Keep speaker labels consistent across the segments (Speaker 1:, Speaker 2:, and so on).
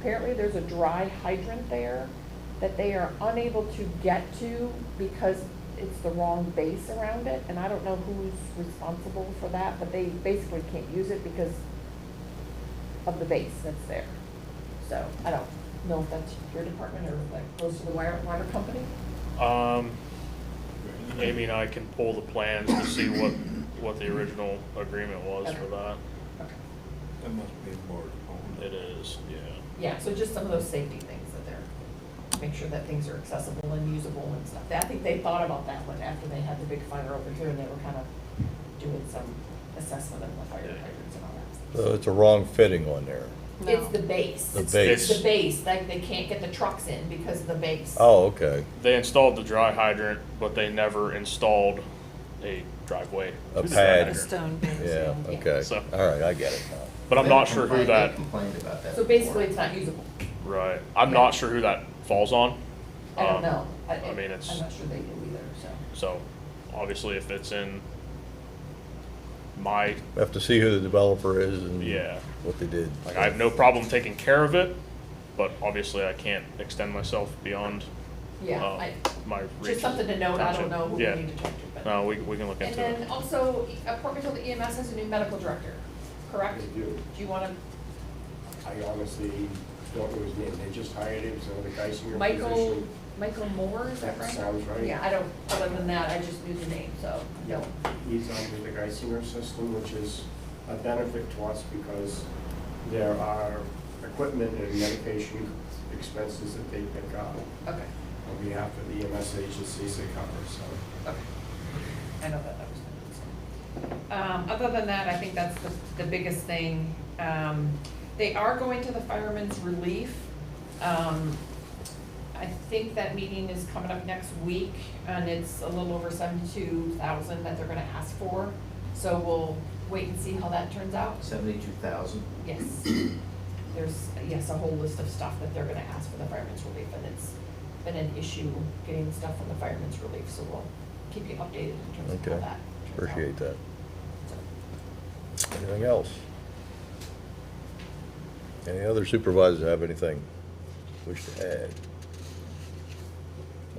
Speaker 1: apparently there's a dry hydrant there that they are unable to get to because it's the wrong base around it, and I don't know who's responsible for that, but they basically can't use it because of the base that's there. So I don't know if that's your department or like close to the wire, water company?
Speaker 2: Um, Amy and I can pull the plans to see what, what the original agreement was for that.
Speaker 1: Okay.
Speaker 3: That must be more. than-
Speaker 2: It is, yeah.
Speaker 1: Yeah, so just some of those safety things that they're, make sure that things are accessible and usable and stuff. I think they thought about that one after they had the big fire over here and they were kind of doing some assessment of the fire hydrants and all that.
Speaker 4: So Uh, it's a wrong fitting on there.
Speaker 1: It's the base.
Speaker 4: The
Speaker 1: It's-
Speaker 4: base.
Speaker 1: It's the base, like they can't get the trucks in because of the base.
Speaker 4: Oh, okay,
Speaker 2: They installed the dry hydrant, but they never installed a driveway.
Speaker 4: A
Speaker 2: to the dry
Speaker 4: pad.
Speaker 5: The
Speaker 2: hydrant.
Speaker 5: stone base,
Speaker 4: yeah,
Speaker 5: yeah.
Speaker 4: okay.
Speaker 2: So-
Speaker 4: All right, I get it now.
Speaker 2: But I'm not sure who
Speaker 6: They
Speaker 2: that,
Speaker 6: Complained about that.
Speaker 1: So basically, it's
Speaker 6: before.
Speaker 1: not usable.
Speaker 2: right, I'm not sure who that falls on.
Speaker 1: I don't
Speaker 2: Um,
Speaker 1: know.
Speaker 2: I
Speaker 1: I'm
Speaker 2: mean, it's,
Speaker 1: not sure they do either, so.
Speaker 2: so, obviously if it's in my,
Speaker 4: We Have to see who the developer is and
Speaker 2: Yeah.
Speaker 4: what they did.
Speaker 2: like, I have no problem taking care of it, but obviously I can't extend myself beyond,
Speaker 1: Yeah,
Speaker 2: uh,
Speaker 1: I,
Speaker 2: my reach.
Speaker 1: just something to note. I don't
Speaker 2: Gotcha.
Speaker 1: know who we
Speaker 2: Yeah.
Speaker 1: need to talk to, but.
Speaker 2: No, we, we can look
Speaker 1: And
Speaker 2: into
Speaker 1: then
Speaker 2: it.
Speaker 1: also, E- uh, Port Matilda EMS has a new medical director, correct?
Speaker 7: They do.
Speaker 1: you want
Speaker 7: I honestly don't know his name, they just hired him, so the guy's in
Speaker 1: to,
Speaker 7: your
Speaker 1: Michael,
Speaker 7: position.
Speaker 1: Michael Moore, is that
Speaker 7: That
Speaker 1: right?
Speaker 7: sounds right.
Speaker 1: Yeah, I don't, other than that, I just knew the name, so, no.
Speaker 7: He's under the Geisinger system, which is a benefit to us because there are equipment and medication expenses that they pick up
Speaker 1: Okay,
Speaker 7: on behalf of the EMS agencies they cover, so.
Speaker 1: okay. I know that, that was. Um, other than that, I think that's the, the biggest thing. Um, they are going to the firemen's relief. Um, I think that meeting is coming up next week, and it's a little over seventy-two thousand that they're gonna ask for. So we'll wait and see how that turns out.
Speaker 6: Seventy-two thousand.
Speaker 1: Yes. There's, yes, a whole list of stuff that they're gonna ask for the firemen's relief, and it's been an issue getting stuff from the firemen's relief, so we'll keep you updated in terms of how that
Speaker 4: Okay,
Speaker 1: turns out.
Speaker 4: appreciate that.
Speaker 1: So,
Speaker 4: Anything else? Any other supervisors have anything wish to add?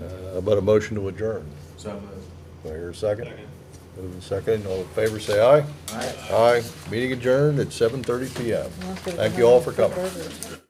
Speaker 4: Uh, About a motion to adjourn.
Speaker 6: So moved.
Speaker 4: Do I hear a second? Moving second, all in favor, say aye.
Speaker 6: All right.
Speaker 4: Aye. Meeting adjourned at 7:30 PM. Thank you all for coming.
Speaker 5: Burgers.